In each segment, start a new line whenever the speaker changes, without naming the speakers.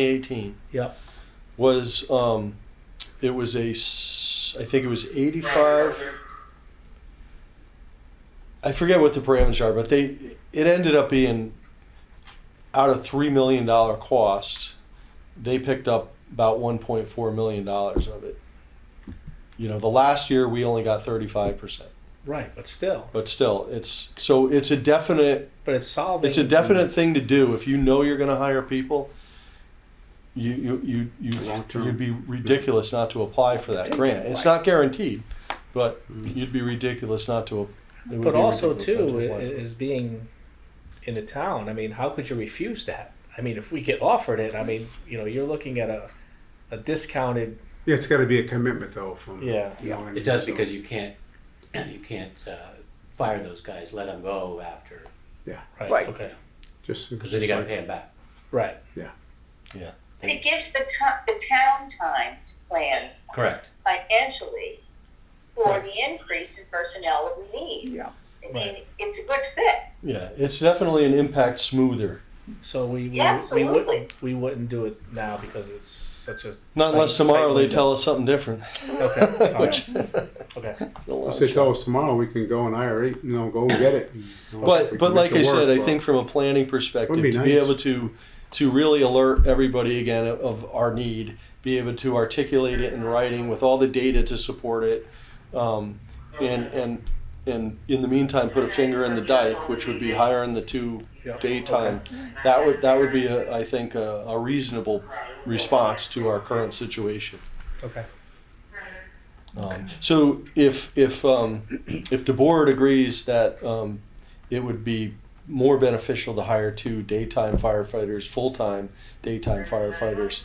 2018
Yep.
was um, it was a s- I think it was 85. I forget what the parameters are, but they it ended up being out of three million dollar cost, they picked up about 1.4 million dollars of it. You know, the last year we only got 35 percent,
Right, but still,
but still, it's so it's a definite
but it's solving.
it's a definite thing to do if you know you're going to hire people. You you you you
Long-term.
you'd be ridiculous not to apply for that grant. It's not guaranteed, but you'd be ridiculous not to. it would
But
be
also
ridiculous
too,
not to
i-
apply for it.
is being in the town. I mean, how could you refuse that? I mean, if we get offered it, I mean, you know, you're looking at a, a discounted.
Yeah, it's got to be a commitment though from.
Yeah.
you know what I mean?
It does
So-
because you can't, you can't uh, fire those guys, let them go after,
Right.
Right.
Okay.
Just
because then you gotta pay them back.
Right.
It gives the to- the town time to plan
Correct.
financially for
Right.
the increase in personnel that we need.
Yeah.
I mean,
Right.
it's a good fit.
yeah, it's definitely an impact smoother.
So we we,
Yeah,
we
absolutely.
wouldn't we wouldn't do it now because it's such a
Not unless
Tight-
tomorrow
tight
they
window.
tell us something different.
okay. all right,
Which,
okay.
it's a long
Unless they
shot.
tell us tomorrow, we can go and hire eight, you know, go and get it.
Mm-hmm.
But but like I said, I think from a planning
Would
perspective,
be
to be
nice.
able to to really alert everybody again of, of our need, be able to articulate it in writing with all the data to support it, um, and and and in the meantime, put a finger in the dike, which would be hiring the two
Yeah.
daytime. That would that would be a, I think a, a reasonable response to our current situation.
Okay.
Um, so if if um, if the board agrees that um, it would be more beneficial to hire two daytime firefighters, full time daytime firefighters,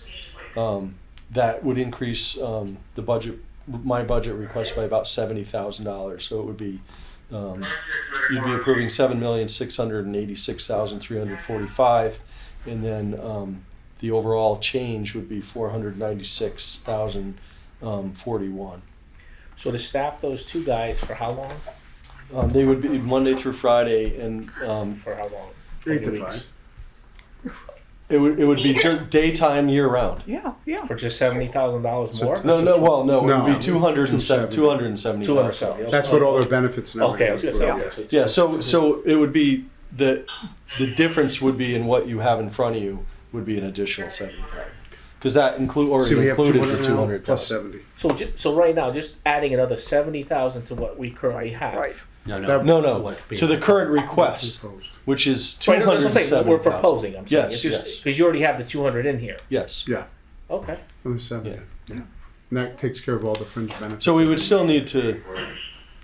um, that would increase um, the budget, my budget request by about seventy thousand dollars. So it would be. Um, you'd be approving seven million six hundred and eighty-six thousand three hundred forty-five, and then um, the overall change would be four hundred ninety-six thousand um, forty-one.
So to staff those two guys for how long?
Um, they would be Monday through Friday, and um,
For how long? How many
Eight to
weeks?
five.
it would it would be ju- daytime year round.
Yeah, yeah.
For just seventy thousand dollars more.
No, no, well, no, it would
No.
be two hundred and seven, two hundred and seventy.
Two hundred seventy.
That's what all their benefits and
Okay,
everything.
I was gonna say.
were.
Okay. so-
Yeah, so so it would be the the difference would be in what you have in front of you would be an additional seventy thousand because that include or
See, we have
included the
200
two
now
hundred
plus 70.
So ju- so right now, just adding another seventy thousand to what we currently have.
Right.
No,
That-
No, no,
What's being-
to the current request,
Proposed.
which is two
Right, no,
hundred
that's
and
what I'm saying.
seventy.
We're proposing. I'm saying
Yes,
it's just
yes.
because you already have the two hundred in here.
Yes.
Okay.
Another 70. Yeah. And that takes care of all the fringe benefits.
So we would still need to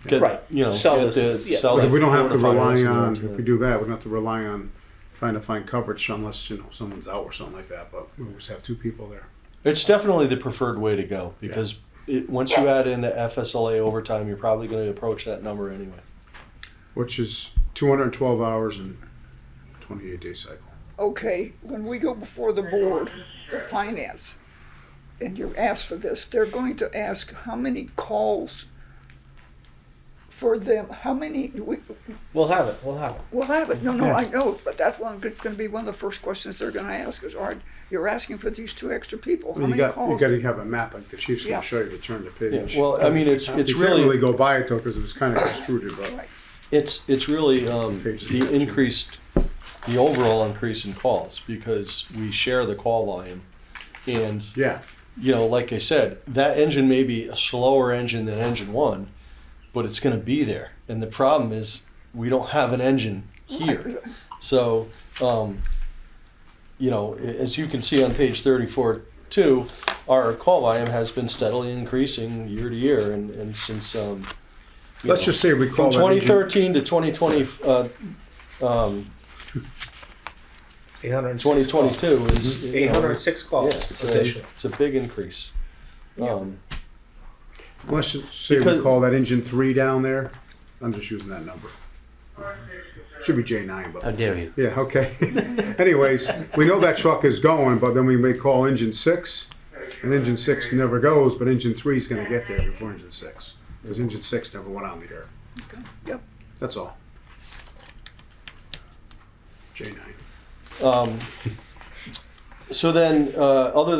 get
Right.
you know
Sell
get
this-
the
yeah.
sell.
But
the
we don't have to
quarterfinals
rely
and
on,
then to-
if we do that, we don't have to rely on trying to find coverage unless, you know, someone's out or something like that, but we always have two people there.
It's definitely the preferred way to go because it, once you add in the FSLA overtime, you're probably going to approach that number anyway.
Which is two hundred and twelve hours and twenty-eight day cycle.
Okay, when we go before the board of finance and you ask for this, they're going to ask how many calls for them, how many, we,
We'll have it. We'll have it.
we'll have it. No, no, I know, but that's one, going to be one of the first questions they're gonna ask is, all right, you're asking for these two extra people. How
Well, you
many
got, you
calls?
gotta have a map, like the chief's
Yeah.
gonna show you to turn the page.
Yeah, well, I mean, it's- it's
You can't
really-
really go by it though, cause it was kinda extruded, but
Right.
It's it's really um,
Pages
the
of that, too.
increased, the overall increase in calls because we share the call volume, and
yeah.
you know, like I said, that engine may be a slower engine than engine one, but it's going to be there. And the problem is we don't have an engine here. So, um, you know, a- as you can see on page 34, too, our call volume has been steadily increasing year to year. And, and since, um, you
Let's
know,
just say we
from
call that engine,
2013 to 2020, uh, um,
Eight hundred.
2022 is you know,
Eight hundred six
yeah,
calls
it's, a,
additional.
it's a big increase. Um,
let's just say we
Because-
call that engine three down there, I'm just using that number. Should be J nine,
How
but,
dare you?
yeah, okay. Anyways, we know that truck is going, but then we may call engine six, and engine six never goes, but engine three's gonna get there before engine six. Cause engine six never went on the air,
Yep,
that's all. J nine.
Um, So then, uh, other